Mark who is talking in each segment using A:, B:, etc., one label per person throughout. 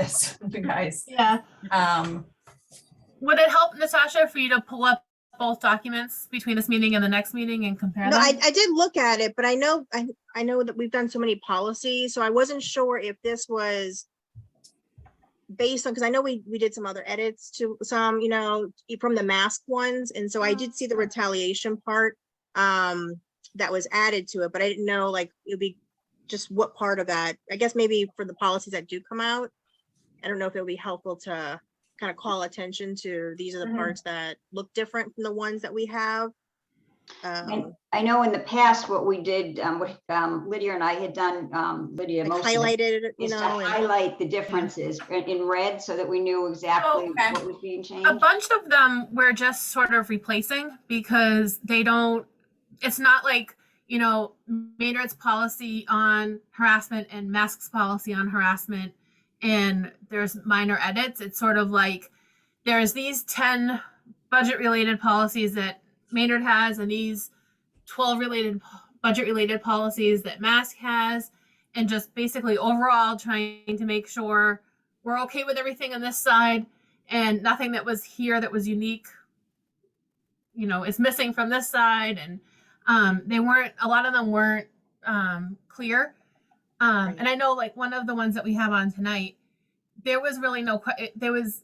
A: this, you guys.
B: Yeah.
A: Um,
B: Would it help, Natasha, for you to pull up both documents between this meeting and the next meeting and compare
C: No, I,
B: them?
C: I did look at it, but I know, I, I know that we've done so many policies, so I wasn't sure if this was based on, because I know we, we did some other edits to some, you know, e- from the mask ones, and so I did see the retaliation part um, that was added to it, but I didn't know, like, it'd be just what part of that, I guess maybe for the policies that do come out. I don't know if it would be helpful to kind of call attention to, these are the
A: Mhm.
C: parts that look different from the ones that we have. Um,
D: I know in the past what we did, um, what, um, Lydia and I had done, um, Lydia
C: like
D: mostly.
C: highlighted, you
D: Is to
C: know, and
D: highlight the differences in, in red so that we knew exactly
E: Oh,
A: okay.
D: what was being
B: A
D: changed.
B: bunch of them we're just sort of replacing because they don't, it's not like, you know, Maynard's policy on harassment and Mask's policy on harassment and there's minor edits. It's sort of like there's these 10 budget related policies that Maynard has and these 12 related budget related policies that Mask has and just basically overall trying to make sure we're okay with everything on this side and nothing that was here that was unique you know is missing from this side and um they weren't a lot of them weren't um clear um
C: Right.
B: and i know like one of the ones that we have on tonight there was really no que- it- there was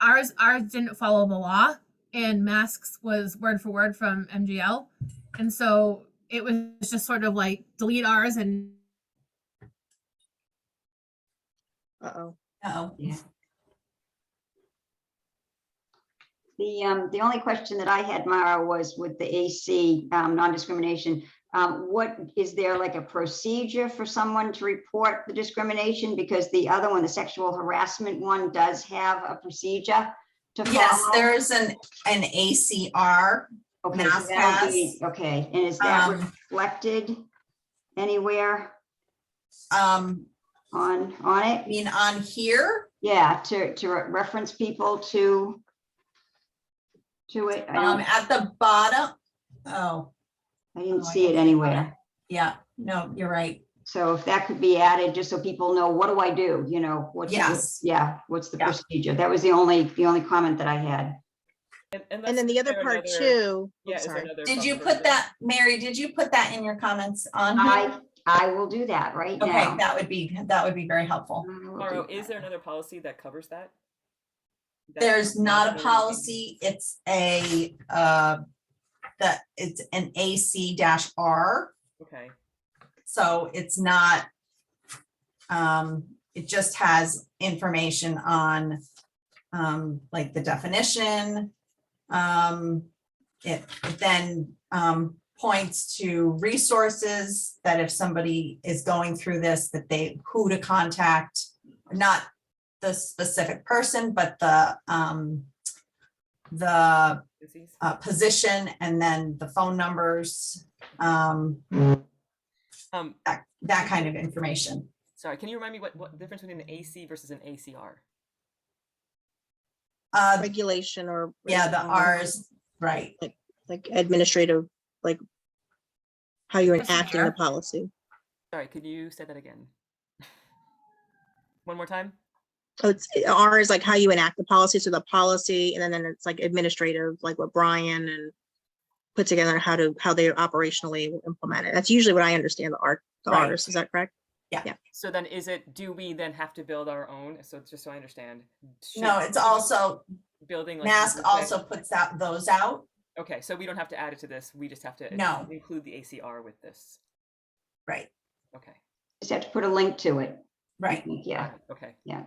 B: ours ours didn't follow the law and masks was word for word from mgl and so it was just sort of like delete ours and
C: uh-oh,
A: oh,
D: Yeah. The, um, the only question that I had, Mara, was with the AC, um, non-discrimination. Um, what, is there like a procedure for someone to report the discrimination? Because the other one, the sexual harassment one, does have a procedure to follow.
E: Yes, there's an, an ACR.
D: Okay, so that would be- Okay, and is that
E: Um,
D: reflected anywhere
E: um,
D: on, on
E: I
D: it?
E: mean, on here,
D: Yeah, to, to re- reference people to to it. I
E: um,
D: don't,
E: at the bottom, oh,
D: I didn't
E: oh, I
D: see it
E: don't-
D: anywhere.
E: yeah, no, you're right.
D: So if that could be added, just so people know, what do I do? You know, what's, the-
E: Yes.
D: yeah, what's the
E: Yeah.
D: procedure? That was the only, the only comment that I had.
C: and then the other part too,
F: Yeah,
C: I'm
F: is
C: sorry,
F: another.
E: Did you
F: bumper
E: put that,
F: that-
E: Mary, did you put that in your comments on? here?
D: I, I will do that right
E: Mm-hmm. Okay,
D: now.
E: that would be, that would be very helpful.
D: I will do
F: Mauro, is
D: that.
F: there another policy that covers that? That-
E: There's not a
F: that-
E: policy, it's a, uh, that, it's an AC dash R,
F: Okay,
E: so it's not, um, it just has information on, um, like the definition. Um, it it then, um, points to resources that if somebody is going through this, that they, who to contact, not the specific person, but the, um, the
F: disease?
E: uh, position and then the phone numbers, um,
F: Um,
E: that, that kind of information.
F: sorry, can you remind me what, what difference between an AC versus an ACR?
E: Uh,
C: regulation or.
E: yeah, the
C: um,
E: R's, right.
C: Like administrative, like how you're enacting the
B: Procedure.
C: policy.
F: Sorry, could you say that again? One more time?
C: So it's, R is like how you enact the policy, so the policy, and then- then it's like administrative, like what Brian and put together how to, how they operationally will implement it. That's usually what I understand the R, the
E: Right.
C: Rs, is that correct?
F: So then is it, do we then have to build our own? So just so I understand. should-
E: No, it's also,
F: Building like.
E: mask
F: you said-
E: also puts out those out,
F: Okay, so we don't have to add it to this. We just have to.
E: No.
F: Include the ACR with this.
E: right,
F: Okay,
D: Just have to put a link to it. I
E: right.
D: think, Yeah,
F: got it, okay.
D: yeah.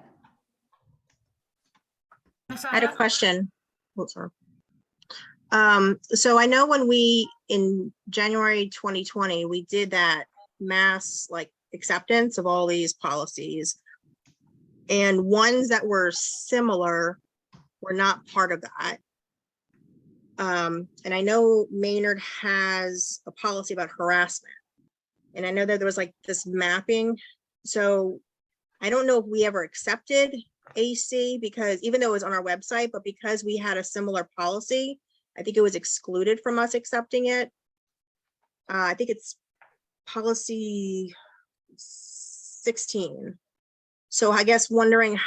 C: I had a question. Oh, sorry. Um, so I know when we, in January twenty twenty, we did that mass like acceptance of all these policies. And ones that were similar were not part of that. Um, and I know Maynard has a policy about harassment. And I know that there was like this mapping, so I don't know if we ever accepted AC because even though it was on our website, but because we had a similar policy, I think it was excluded from us accepting it. Uh, I think it's policy sixteen. So I guess wondering